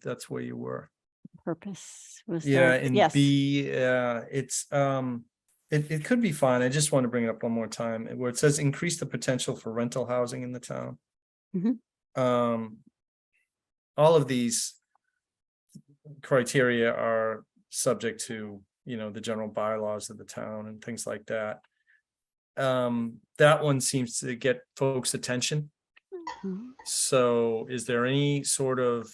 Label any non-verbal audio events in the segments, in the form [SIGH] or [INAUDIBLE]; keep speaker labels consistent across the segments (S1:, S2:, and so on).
S1: that's where you were.
S2: purpose was.
S1: Yeah,
S2: served.
S1: and
S2: Yes.
S1: B, uh, it's, um, it, it could be fine. I just want to bring it up one more time, where it says increase the potential for rental housing in the town.
S2: Mhm.
S1: Um, all of these criteria are subject to, you know, the general bylaws of the town and things like that. Um, that one seems to get folks' attention.
S2: Mhm.
S1: So is there any sort of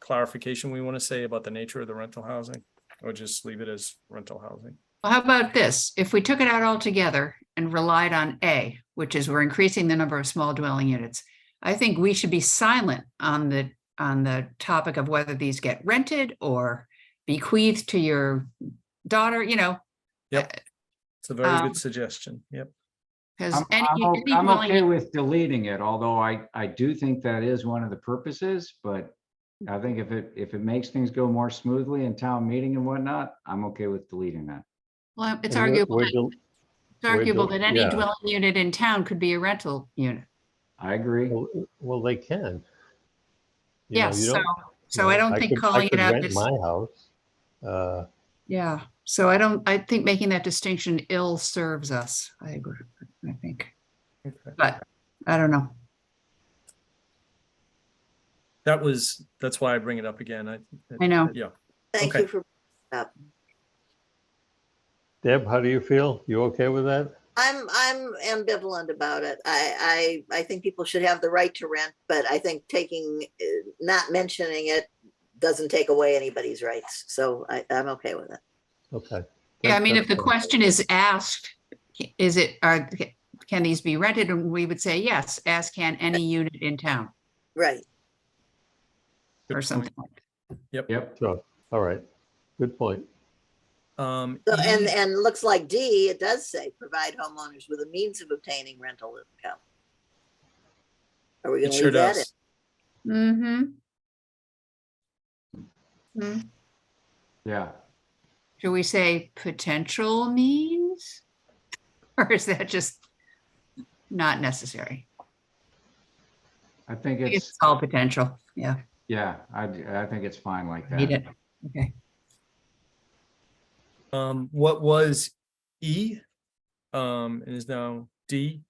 S1: clarification we want to say about the nature of the rental housing? Or just leave it as rental housing?
S3: Well, how about this? If we took it out altogether and relied on A, which is we're increasing the number of small dwelling units, I think we should be silent on the, on the topic of whether these get rented or bequeathed to your daughter, you know,
S1: It's a very
S3: Um,
S1: good suggestion. Yep.
S3: because
S4: I'm,
S3: any,
S4: I'm o-
S3: any
S4: I'm
S3: dwelling
S4: okay with deleting it, although I, I do think that is one of the purposes, but I think if it, if it makes things go more smoothly in town meeting and whatnot, I'm okay with deleting that.
S3: Well, it's
S5: And we're-
S3: arguable,
S5: we're
S3: that-
S5: del-
S3: it's arguable
S5: del-
S3: that any
S5: yeah.
S3: dwelling unit in town could be a rental unit.
S4: I agree.
S5: Well, well, they can. You know,
S3: Yes,
S5: you
S3: so,
S5: don't-
S3: so I
S5: you know,
S3: don't think
S5: could- I
S3: calling it
S5: could
S3: out
S5: rent
S3: this,
S5: My house, uh,
S3: yeah, so I don't, I think making that distinction ill serves us. I agree, I think,
S1: Okay.
S3: but I don't know.
S1: That was, that's why I bring it up again. I.
S3: I know.
S1: Yeah,
S6: Thank
S1: Okay.
S6: you for,
S5: Deb, how do you feel? You okay with that?
S6: I'm, I'm ambivalent about it. I, I, I think people should have the right to rent, but I think taking, uh, not mentioning it doesn't take away anybody's rights. So I, I'm okay with it.
S5: Okay.
S3: Yeah, I
S5: That-
S3: mean, if
S5: that's
S3: the
S5: fine.
S3: question is asked, is it, are, can these be rented? And we would say yes, as can any unit in town
S6: Right.
S1: good
S3: or
S1: point.
S3: something. like that.
S4: Yep.
S5: Sure, all right, good point.
S1: Um,
S6: So, and,
S1: E-
S6: and it looks like D, it does say provide homeowners with a means of obtaining rental income. Are we
S1: E, it
S6: gonna
S1: sure
S6: leave that in?
S1: does.
S3: Mm-hmm. Mm.
S4: Yeah.
S3: Should we say potential means? [LAUGHS] Or is that just not necessary?
S4: I think
S3: I guess It's
S4: it's,
S3: all potential, yeah,
S4: yeah, I, I think it's fine like
S3: need
S4: that.
S3: it, okay.
S1: Um, what was E? Um, and is now D.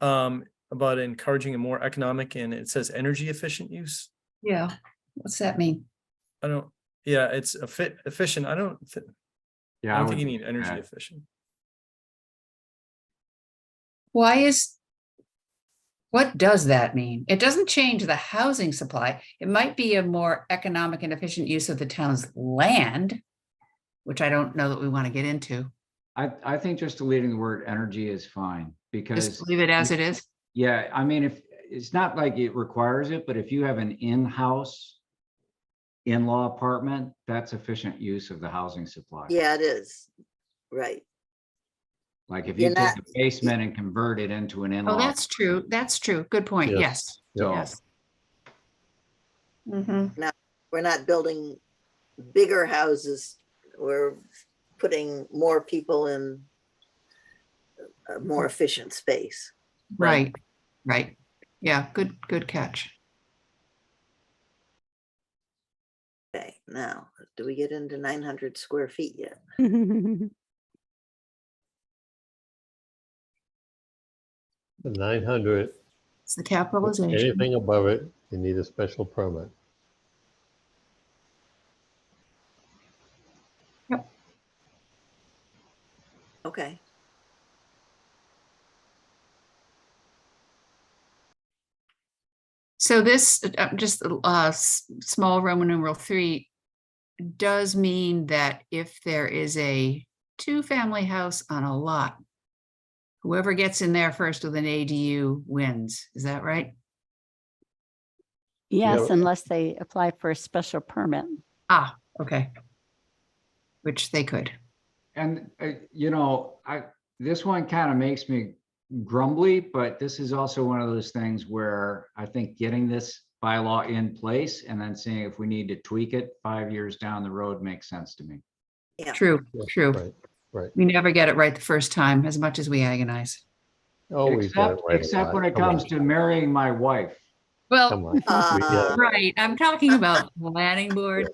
S1: Um, about encouraging a more economic and it says energy efficient use.
S3: Yeah, what's that mean?
S1: I don't, yeah, it's a fit efficient. I don't, thi- I
S4: Yeah. I
S1: don't think you
S4: would-
S1: need energy
S4: that.
S1: efficient.
S3: Why is, what does that mean? It doesn't change the housing supply. It might be a more economic and efficient use of the town's land, which I don't know that we want to get into.
S4: I, I think just deleting the word energy is fine because,
S3: Just leave it as it is.
S4: yeah, I mean, if, it's not like it requires it, but if you have an in-house in-law apartment, that's efficient use of the housing supply.
S6: Yeah, it is. Right.
S4: Like if
S6: You're
S4: you take
S6: not-
S4: the basement and convert it into an in-law.
S3: Oh, that's true. That's true. Good point. Yes,
S4: So,
S3: yes. Mhm.
S6: We're not building bigger houses. We're putting more people in a more efficient space.
S3: right, right. Yeah, good, good catch.
S6: Okay, now, do we get into nine hundred square feet yet?
S2: Mm-hmm. [LAUGHS]
S5: The nine hundred,
S3: It's the capitalization.
S5: anything above it, you need a special permit.
S6: Okay,
S3: So this, uh, just uh, s- small Roman numeral three does mean that if there is a two-family house on a lot, whoever gets in there first with an ADU wins. Is that right?
S2: Yes, unless they apply for a special permit.
S3: Ah, okay. Which they could.
S4: and, uh, you know, I, this one kind of makes me grumbly, but this is also one of those things where I think getting this bylaw in place and then seeing if we need to tweak it five years down the road makes sense to me.
S6: Yeah.
S3: True,
S5: Yeah,
S3: true.
S5: Right, right.
S3: We never get it right the first time, as much as we agonize.
S5: Always. got it
S4: Except,
S5: right
S4: except
S5: away.
S4: when it
S5: Come on.
S4: comes to marrying my wife.
S3: Well,
S5: Come on. We- yeah.
S6: Uh,
S3: right, I'm talking about planning board.